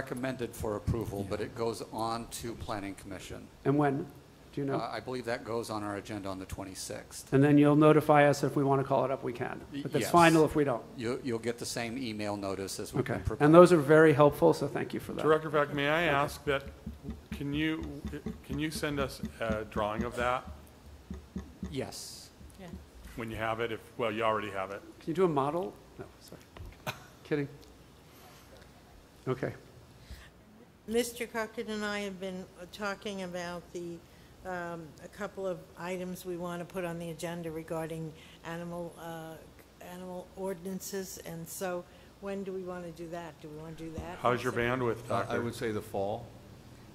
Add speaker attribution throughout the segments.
Speaker 1: recommended for approval, but it goes on to Planning Commission.
Speaker 2: And when? Do you
Speaker 1: Uh,
Speaker 2: know?
Speaker 1: I believe that goes on our agenda on the 26th.
Speaker 2: And then you'll notify us if we want to call it up, we can.
Speaker 1: Y-
Speaker 2: But that's
Speaker 1: yes.
Speaker 2: final if we don't.
Speaker 1: You- You'll get the same email notice as we've
Speaker 2: Okay.
Speaker 1: been preparing.
Speaker 2: And those are very helpful, so thank you for that.
Speaker 3: Director Beck, may I ask that, can you, can you send us a drawing of that
Speaker 1: Yes.
Speaker 4: Yeah.
Speaker 3: when you have it? If, well, you already have it.
Speaker 2: Can you do a model? No, sorry. Kidding. Okay.
Speaker 4: Mr. Cochran and I have been uh, talking about the, um, a couple of items we want to put on the agenda regarding animal, uh, animal ordinances, and so when do we want to do that? Do we want to do that?
Speaker 3: How's your
Speaker 4: Sep-
Speaker 3: bandwidth,
Speaker 5: Uh, I
Speaker 3: Doctor?
Speaker 5: would say the fall,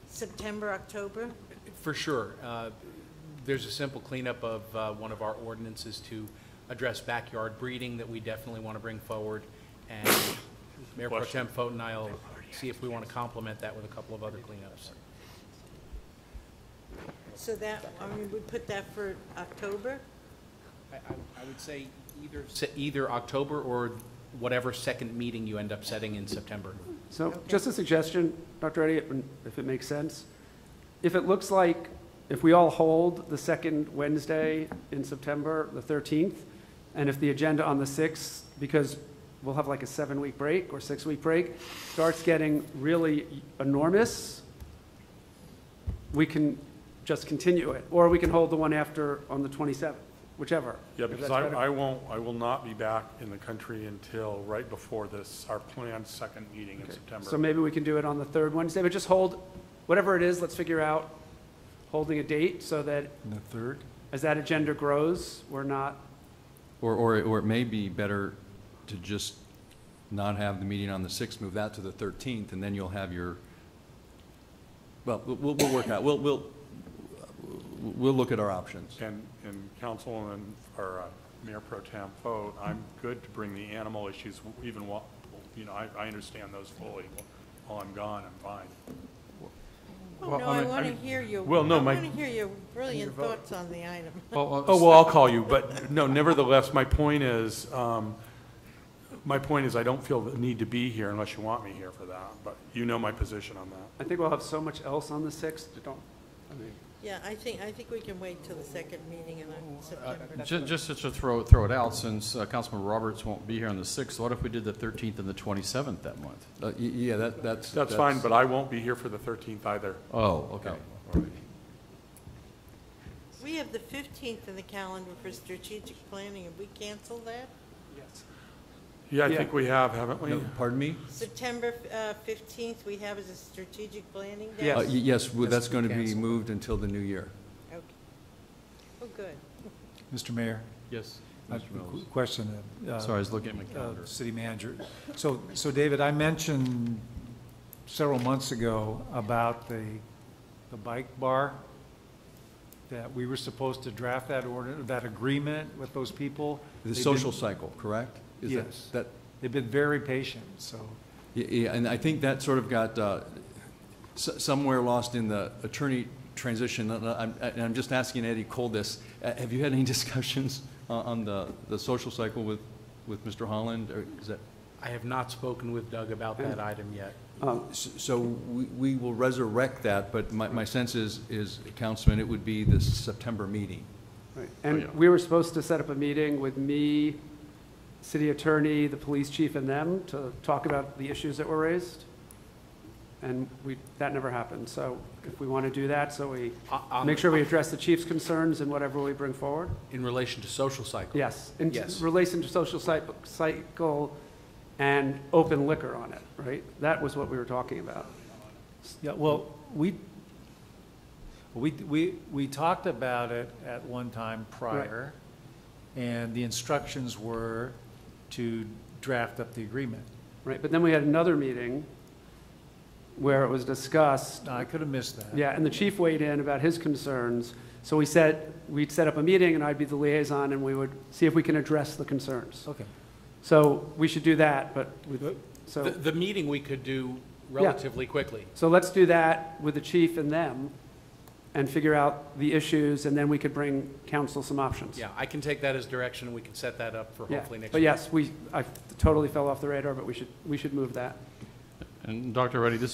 Speaker 4: September, October?
Speaker 6: For sure. Uh, There's a simple cleanup of uh, one of our ordinances to address backyard breeding that we definitely want to bring forward. And Mayor Pro
Speaker 3: Question.
Speaker 6: Tem Foten and I will see if we want to complement that with a couple of other cleanups.
Speaker 4: So that, I mean, we put that for October?
Speaker 6: I- I I would say either. Either October or whatever second meeting you end up setting in September.
Speaker 2: So
Speaker 4: Okay.
Speaker 2: just a suggestion, Dr. Eddy, if it makes sense. If it looks like, if we all hold the second Wednesday in September, the 13th, and if the agenda on the 6th, because we'll have like a seven-week break or six-week break, starts getting really enormous, we can just continue it. Or we can hold the one after on the 27th, whichever.
Speaker 3: Yeah,
Speaker 2: if
Speaker 3: because
Speaker 2: that's
Speaker 3: I,
Speaker 2: better.
Speaker 3: I won't, I will not be back in the country until right before this, our planned second meeting in
Speaker 2: Okay.
Speaker 3: September.
Speaker 2: So maybe we can do it on the third Wednesday, but just hold, whatever it is, let's figure out holding a date so that
Speaker 5: the third?
Speaker 2: as that agenda grows, we're not,
Speaker 5: Or, or, or it may be better to just not have the meeting on the 6th, move that to the 13th, and then you'll have your, well, we'll, we'll- we'll work out, we'll, we'll, we'll look at our options.
Speaker 3: And, and council and, or uh, Mayor Pro Tem vote, I'm good to bring the animal issues, even while, you know, I, I understand those fully. While I'm gone, I'm fine.
Speaker 4: Oh,
Speaker 3: Well,
Speaker 4: no,
Speaker 3: I
Speaker 4: I
Speaker 3: mean- I
Speaker 4: want to
Speaker 3: mean-
Speaker 4: hear your, I
Speaker 3: well, no, my-
Speaker 4: want to hear your brilliant thoughts on the item.
Speaker 3: Oh, well, I'll call you, but no, nevertheless, my point is, um, my point is I don't feel the need to be here unless you want me here for that, but you know my position on
Speaker 2: I
Speaker 3: that.
Speaker 2: think we'll have so much else on the 6th, don't, I mean,
Speaker 4: Yeah, I think, I think we can wait till the second meeting in uh, September.
Speaker 7: Ju- Just to throw, throw it out, since uh, Councilman Roberts won't be here on the 6th, what if we did the 13th and the 27th that month?
Speaker 5: Uh, y- Yeah, that, that's.
Speaker 3: That's fine, but I won't be here for the 13th either.
Speaker 7: Oh, okay. All right.
Speaker 4: We have the 15th in the calendar for strategic planning, and we cancel that?
Speaker 2: yes.
Speaker 3: Yeah, I
Speaker 2: Yeah.
Speaker 3: think we have, haven't we?
Speaker 5: No, Pardon me?
Speaker 4: September uh, 15th, we have as a strategic planning day?
Speaker 5: Uh,
Speaker 2: Yes.
Speaker 5: y- Yes, well,
Speaker 6: That's
Speaker 5: that's going to be
Speaker 6: canceled.
Speaker 5: moved until the new year.
Speaker 4: Okay. Oh, good.
Speaker 8: Mr. Mayor,
Speaker 7: Yes.
Speaker 8: I have
Speaker 7: Mr.
Speaker 8: a
Speaker 7: Mills.
Speaker 8: qu- question. uh,
Speaker 7: Sorry, I was looking at my
Speaker 8: uh,
Speaker 7: calendar.
Speaker 8: City manager. So, so David, I mentioned several months ago about the, the bike bar, that we were supposed to draft that order, that agreement with those people.
Speaker 5: The
Speaker 8: They've been-
Speaker 5: social cycle, correct? Is that-
Speaker 8: Yes.
Speaker 5: That,
Speaker 8: They've been very patient, so.
Speaker 5: Yeah, Yeah, and I think that sort of got uh, s- somewhere lost in the attorney transition. And I'm- And I'm just asking Eddie Cole this. Uh, Have you had any discussions uh, on the, the social cycle with, with Mr. Holland? Or is that,
Speaker 6: I have not spoken with Doug about that item yet.
Speaker 2: Um,
Speaker 5: S- so we we will resurrect that, but my, my sense is, is, Councilman, it would be this September meeting.
Speaker 2: Right. And we were supposed to set up a meeting with me, city attorney, the police chief, and them to talk about the issues that were raised. And we, that never happened, so if we want to do that, so we
Speaker 6: O- on-
Speaker 2: make sure we address the chief's concerns and whatever we bring forward.
Speaker 6: In relation to social cycle.
Speaker 2: Yes, in
Speaker 6: Yes.
Speaker 2: relation to social cy- cycle and open liquor on it, right? That was what we were talking about.
Speaker 8: Yeah, well, we, we, we, we talked about it at one time prior, and the instructions were to draft up the agreement.
Speaker 2: Right, but then we had another meeting where it was discussed,
Speaker 8: No, I could have missed that.
Speaker 2: yeah, and the chief weighed in about his concerns. So we said, we'd set up a meeting and I'd be the liaison and we would see if we can address the concerns.
Speaker 8: Okay.
Speaker 2: So we should do that, but, we-
Speaker 6: The,
Speaker 2: so,
Speaker 6: the meeting we could do relatively quickly.
Speaker 2: so let's do that with the chief and them and figure out the issues and then we could bring council some options.
Speaker 6: Yeah, I can take that as direction, and we can set that up for
Speaker 2: Yeah,
Speaker 6: hopefully next.
Speaker 2: But
Speaker 6: week.
Speaker 2: yes, we, I totally fell off the radar, but we should, we should move that.
Speaker 7: And Dr. Reddy, this